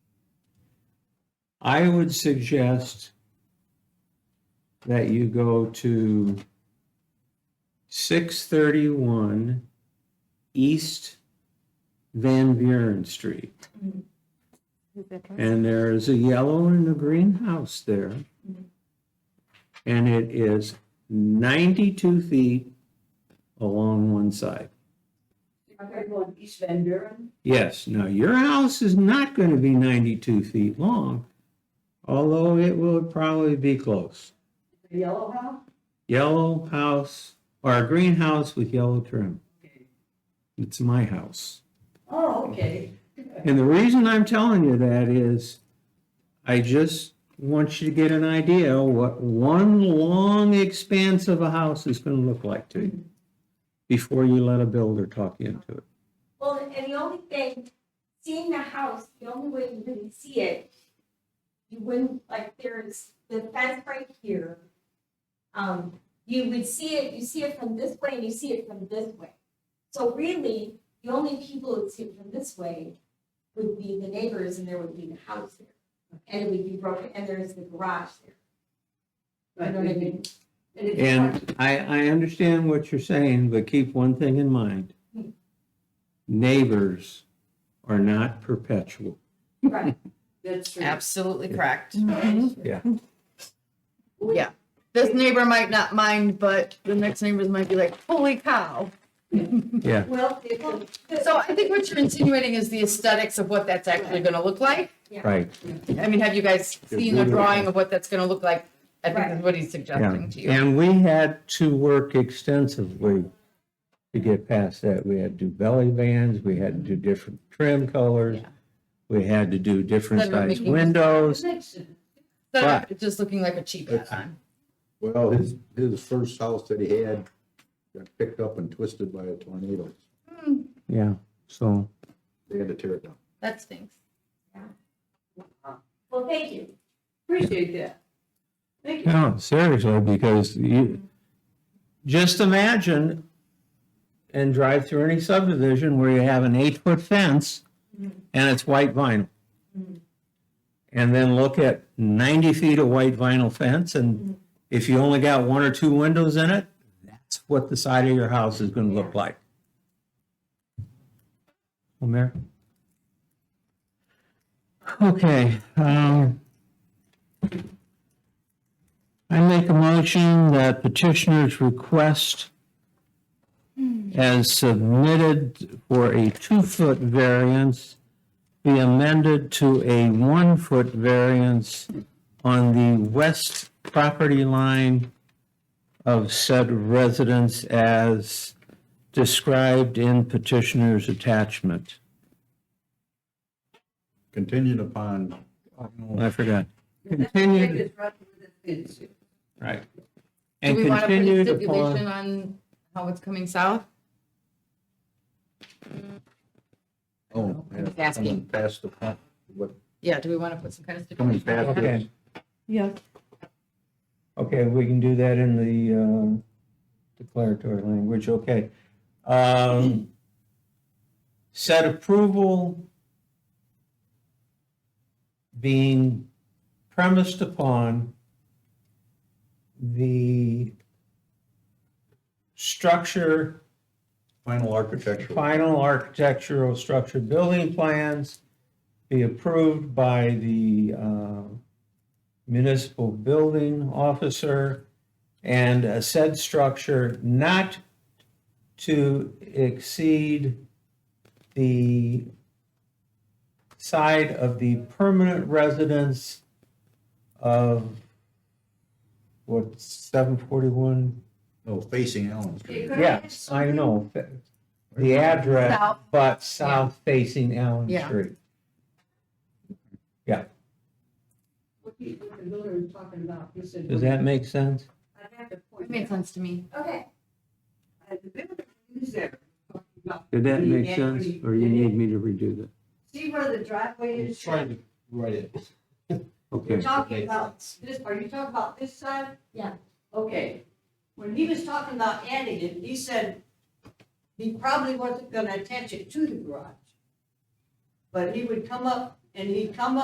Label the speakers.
Speaker 1: I would suggest that you go to six thirty-one East Van Buren Street. And there is a yellow and a green house there. And it is ninety-two feet along one side.
Speaker 2: Okay, going East Van Buren,
Speaker 1: Yes, now your house is not going to be 92 feet long, although it will probably be close.
Speaker 2: the yellow house?
Speaker 1: Yellow house or a green house with yellow trim. It's my house.
Speaker 2: Oh, okay.
Speaker 1: And the reason I'm telling you that is I just want you to get an idea what one long expanse of a house is going to look like to you before you let a builder talk you into it.
Speaker 3: Well, and the only thing, seeing the house, the only way you wouldn't see it, you wouldn't, like, there's the fence right here. Um, you would see it, you see it from this way and you see it from this way. So really, the only people who'd see it from this way would be the neighbors and there would be the house there. And it would be broken, and there's the garage there, you know what I mean?
Speaker 2: And it's hard-
Speaker 1: And I, I understand what you're saying, but keep one thing in mind.
Speaker 2: Hmm.
Speaker 1: Neighbors are not perpetual.
Speaker 3: Right,
Speaker 2: That's true.
Speaker 4: Absolutely correct.
Speaker 2: We-
Speaker 4: Yeah. This neighbor might not mind, but the next neighbors might be like, holy cow.
Speaker 1: Yeah,
Speaker 2: Well, if, the-
Speaker 4: So I think what you're insinuating is the aesthetics of what that's actually gonna look like.
Speaker 1: right.
Speaker 4: I mean, have you guys seen a drawing of what that's gonna look like? I think
Speaker 3: Right.
Speaker 4: that's what he's suggesting to
Speaker 1: Yeah.
Speaker 4: you.
Speaker 1: And we had to work extensively to get past that. We had to do belly bands, we had to do different trim colors.
Speaker 4: Yeah.
Speaker 1: We had to do different
Speaker 4: Then we're
Speaker 1: size
Speaker 4: making-
Speaker 1: windows.
Speaker 2: connection,
Speaker 4: Instead
Speaker 1: Right.
Speaker 4: of just looking like a cheap add-on.
Speaker 5: Well, his, his first house that he had got picked up and twisted by a tornado.
Speaker 1: Yeah, so,
Speaker 5: They had to tear it down.
Speaker 4: That stinks.
Speaker 3: well, thank you.
Speaker 2: appreciate that. Thank you.
Speaker 1: no, seriously, because you, just imagine and drive through any subdivision where you have an eight-foot fence and it's white vinyl. And then look at ninety feet of white vinyl fence, and if you only got one or two windows in it, that's what the side of your house is gonna look like. Well, Mayor? Okay, um, I make a motion that petitioner's request as submitted for a two-foot variance be amended to a one-foot variance on the west property line of said residence as described in petitioner's attachment.
Speaker 5: Contingent upon,
Speaker 1: I forgot.
Speaker 2: That's
Speaker 1: continued-
Speaker 2: the biggest problem with this issue.
Speaker 1: Right.
Speaker 4: Do
Speaker 1: And
Speaker 4: we want to put a
Speaker 1: continued
Speaker 4: stipulation
Speaker 1: upon,
Speaker 4: on how it's coming south?
Speaker 5: oh.
Speaker 4: I'm just
Speaker 5: yeah,
Speaker 4: asking.
Speaker 5: Coming past the, front, what,
Speaker 4: Yeah, do we want to put some kind of
Speaker 5: coming
Speaker 4: stipulation?
Speaker 5: past
Speaker 4: on
Speaker 5: this,
Speaker 1: Okay.
Speaker 2: Yeah.
Speaker 1: okay, we can do that in the uh, declaratory language, okay. Um, Said approval being premised upon the structure
Speaker 5: final architectural.
Speaker 1: final architectural structure building plans be approved by the uh, municipal building officer and a said structure not to exceed the side of the permanent residence of what, 741
Speaker 5: No, facing Allen Street.
Speaker 1: Yes, I know, fa- the address,
Speaker 4: South.
Speaker 1: but south facing Allen
Speaker 4: Yeah.
Speaker 1: Street.
Speaker 2: What the what the builder was talking about, he said.
Speaker 1: Does that make sense?
Speaker 2: I have to
Speaker 4: It
Speaker 2: point
Speaker 4: made
Speaker 2: out,
Speaker 4: sense to me.
Speaker 3: Okay,
Speaker 2: uh, the builder is there. talking about
Speaker 1: Did
Speaker 2: that make sense, or you need
Speaker 1: me to redo that?
Speaker 2: See where the driveway
Speaker 6: He's
Speaker 2: is?
Speaker 6: trying to write it.
Speaker 2: You're talking about this, are you talking about this side?
Speaker 3: Yeah.
Speaker 2: Okay, when he was talking about adding it, he said he probably wasn't gonna attach it to the garage. But he would come up, and he'd come up.